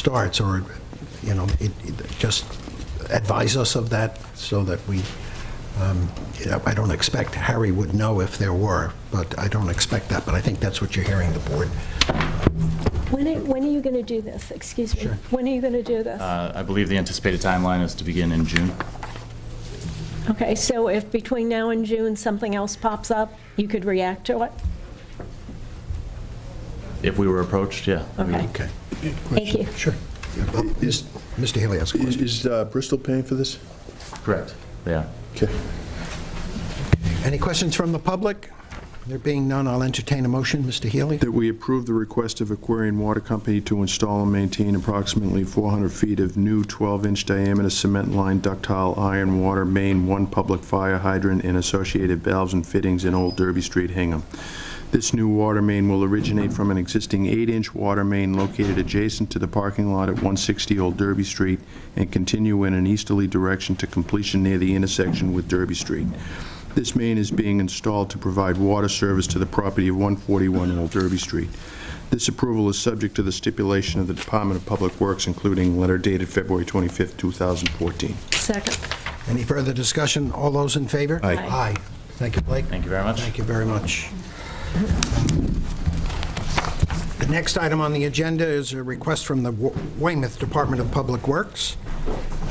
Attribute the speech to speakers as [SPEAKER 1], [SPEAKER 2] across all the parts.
[SPEAKER 1] starts, or, you know, it- it- just advise us of that so that we, um, you know, I don't expect, Harry would know if there were, but I don't expect that, but I think that's what you're hearing the board.
[SPEAKER 2] When are, when are you going to do this? Excuse me? When are you going to do this?
[SPEAKER 3] Uh, I believe the anticipated timeline is to begin in June.
[SPEAKER 2] Okay, so if between now and June, something else pops up, you could react to it?
[SPEAKER 3] If we were approached, yeah. we would.
[SPEAKER 2] Okay.
[SPEAKER 1] Okay.
[SPEAKER 2] Thank you.
[SPEAKER 1] Sure. Yeah, but is- Mr. Haley has a
[SPEAKER 4] Is-
[SPEAKER 1] question.
[SPEAKER 4] Is uh, Bristol paying for this?
[SPEAKER 3] Correct, they are.
[SPEAKER 4] Okay.
[SPEAKER 1] Any questions from the public? There being none, I'll entertain a motion. Mr. Healy?
[SPEAKER 4] That we approve the request of Aquarian Water Company to install and maintain approximately 400 feet of new 12-inch diameter cement line ductile iron water main, one public fire hydrant, and associated valves and fittings in Old Derby Street, Hingham. This new water main will originate from an existing 8-inch water main located adjacent to the parking lot at 160 Old Derby Street and continue in an easterly direction to completion near the intersection with Derby Street. This main is being installed to provide water service to the property of 141 Old Derby Street. This approval is subject to the stipulation of the Department of Public Works, including letter dated February 25, 2014.
[SPEAKER 2] Second.
[SPEAKER 1] Any further discussion? All those in favor?
[SPEAKER 4] Aye.
[SPEAKER 1] Aye. Thank you, Blake.
[SPEAKER 3] Thank you very much.
[SPEAKER 1] Thank you very much. The next item on the agenda is a request from the Wa- Weymouth Department of Public Works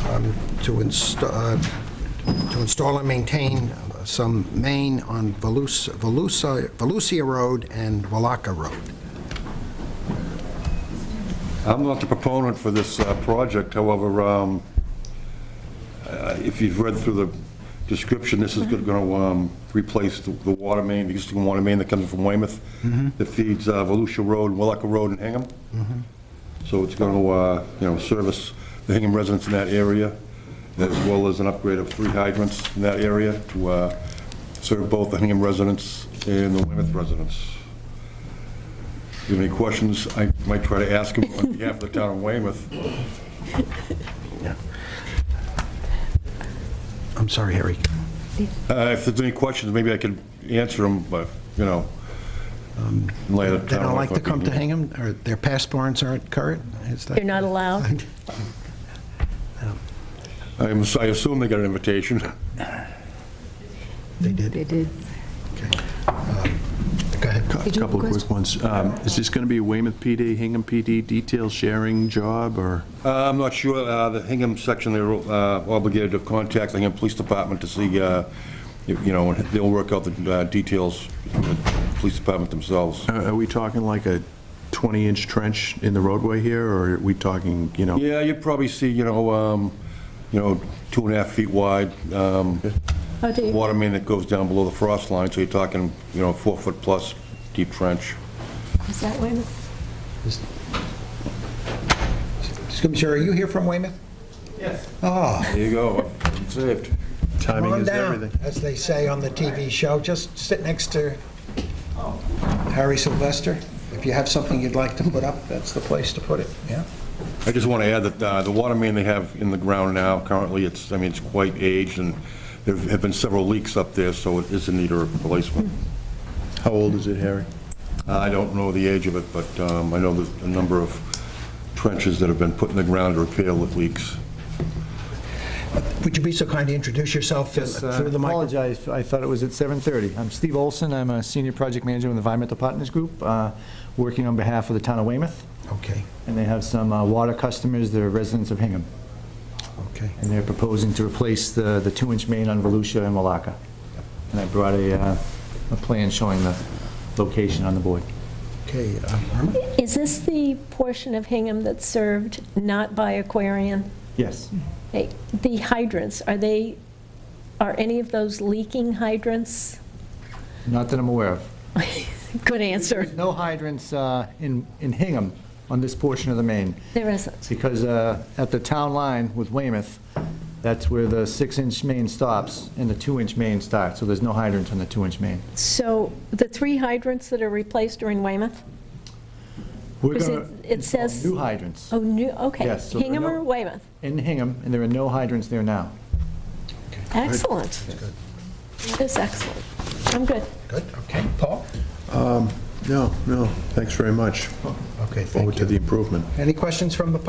[SPEAKER 1] um, to inst- uh, to install and maintain some main on Velus- Velusa- Velusia Road and Wallaka Road.
[SPEAKER 5] I'm not the proponent for this uh, project, however, um, uh, if you've read through the description, this is going to replace the the water main, the existing water main that comes from Weymouth, that feeds uh, Volusia Road, Willacca Road, and Hingham. So it's going to, you know, service the Hingham residents in that area, as well as an upgrade of three hydrants in that area to uh, serve both the Hingham residents and the Weymouth residents. If you have any questions, I might try to ask him on behalf of the town of Weymouth.
[SPEAKER 1] I'm sorry, Harry.
[SPEAKER 5] Uh, If there's any questions, maybe I could answer them, but, you know, um, later.
[SPEAKER 1] They don't like to come to Hingham, or their passports aren't current? Is that-
[SPEAKER 2] You're not allowed?
[SPEAKER 5] I am- I assume they got an invitation.
[SPEAKER 1] They did?
[SPEAKER 6] They did.
[SPEAKER 1] Go ahead.
[SPEAKER 4] A
[SPEAKER 6] you have a
[SPEAKER 4] couple of quick ones. Um, Is this going to be a Weymouth PD, Hingham PD detail sharing job, or?
[SPEAKER 5] Uh, I'm not sure, uh, the Hingham section, they're uh, obligated to contact the Hingham Police Department to see, uh, if, you know, and they'll work out the uh, details with the police department themselves.
[SPEAKER 4] Are are we talking like a 20-inch trench in the roadway here, or are we talking, you know?
[SPEAKER 5] Yeah, you'd probably see, you know, um, you know, two and a half feet wide, um,
[SPEAKER 2] Oh, do you?
[SPEAKER 5] water main that goes down below the frost line, so you're talking, you know, four foot plus deep trench.
[SPEAKER 2] Is that Weymouth?
[SPEAKER 1] Excuse me, sir, are you here from Weymouth? Yes. Oh,
[SPEAKER 5] There you go, saved.
[SPEAKER 1] come
[SPEAKER 4] Timing
[SPEAKER 1] on
[SPEAKER 4] is
[SPEAKER 1] down,
[SPEAKER 4] everything.
[SPEAKER 1] as they say on the TV show. Just sit next to Harry Sylvester. If you have something you'd like to put up, that's the place to put it, yeah?
[SPEAKER 5] I just want to add that uh, the water main they have in the ground now, currently, it's, I mean, it's quite aged, and there have been several leaks up there, so it is in need of replacement. Uh,
[SPEAKER 4] How old is it, Harry?
[SPEAKER 5] I don't know the age of it, but um, I know there's a number of trenches that have been put in the ground to repair the leaks.
[SPEAKER 1] Would you be so kind to introduce yourself through
[SPEAKER 7] Yes, uh,
[SPEAKER 1] through the mic?
[SPEAKER 7] apologize, I thought it was at 7:30. I'm Steve Olson, I'm a senior project manager with Environmental Partners Group, uh, working on behalf of the town of Weymouth,
[SPEAKER 1] Okay,
[SPEAKER 7] and they have some uh, water customers, they're residents of Hingham,
[SPEAKER 1] okay.
[SPEAKER 7] and they're proposing to replace the the two-inch main on Volusia and Malacca. And I brought a uh, a plan showing the location on the board.
[SPEAKER 1] Okay, uh, Irma?
[SPEAKER 2] Is this the portion of Hingham that's served not by Aquarian?
[SPEAKER 7] Yes.
[SPEAKER 2] Hey, The hydrants, are they, are any of those leaking hydrants?
[SPEAKER 7] Not that I'm aware of.
[SPEAKER 2] Good answer.
[SPEAKER 7] No hydrants uh, in in Hingham on this portion of the main.
[SPEAKER 2] There isn't.
[SPEAKER 7] Because uh, at the town line with Weymouth, that's where the six-inch main stops and the two-inch main starts, so there's no hydrants on the two-inch main.
[SPEAKER 2] So the three hydrants that are replaced are in Weymouth?
[SPEAKER 7] We're
[SPEAKER 2] Is it-
[SPEAKER 7] gonna
[SPEAKER 2] it
[SPEAKER 7] install
[SPEAKER 2] says-
[SPEAKER 7] New hydrants
[SPEAKER 2] Oh, new, okay.
[SPEAKER 7] Yes, so there are
[SPEAKER 2] Hingham
[SPEAKER 7] no-
[SPEAKER 2] or Weymouth?
[SPEAKER 7] in Hingham, and there are no hydrants there now.
[SPEAKER 2] Excellent. That is excellent. I'm good.
[SPEAKER 1] Good, okay. Paul?
[SPEAKER 4] No, no, thanks very much.
[SPEAKER 1] Okay, thank
[SPEAKER 4] Forward to
[SPEAKER 1] you.
[SPEAKER 4] the improvement.
[SPEAKER 1] Any questions from the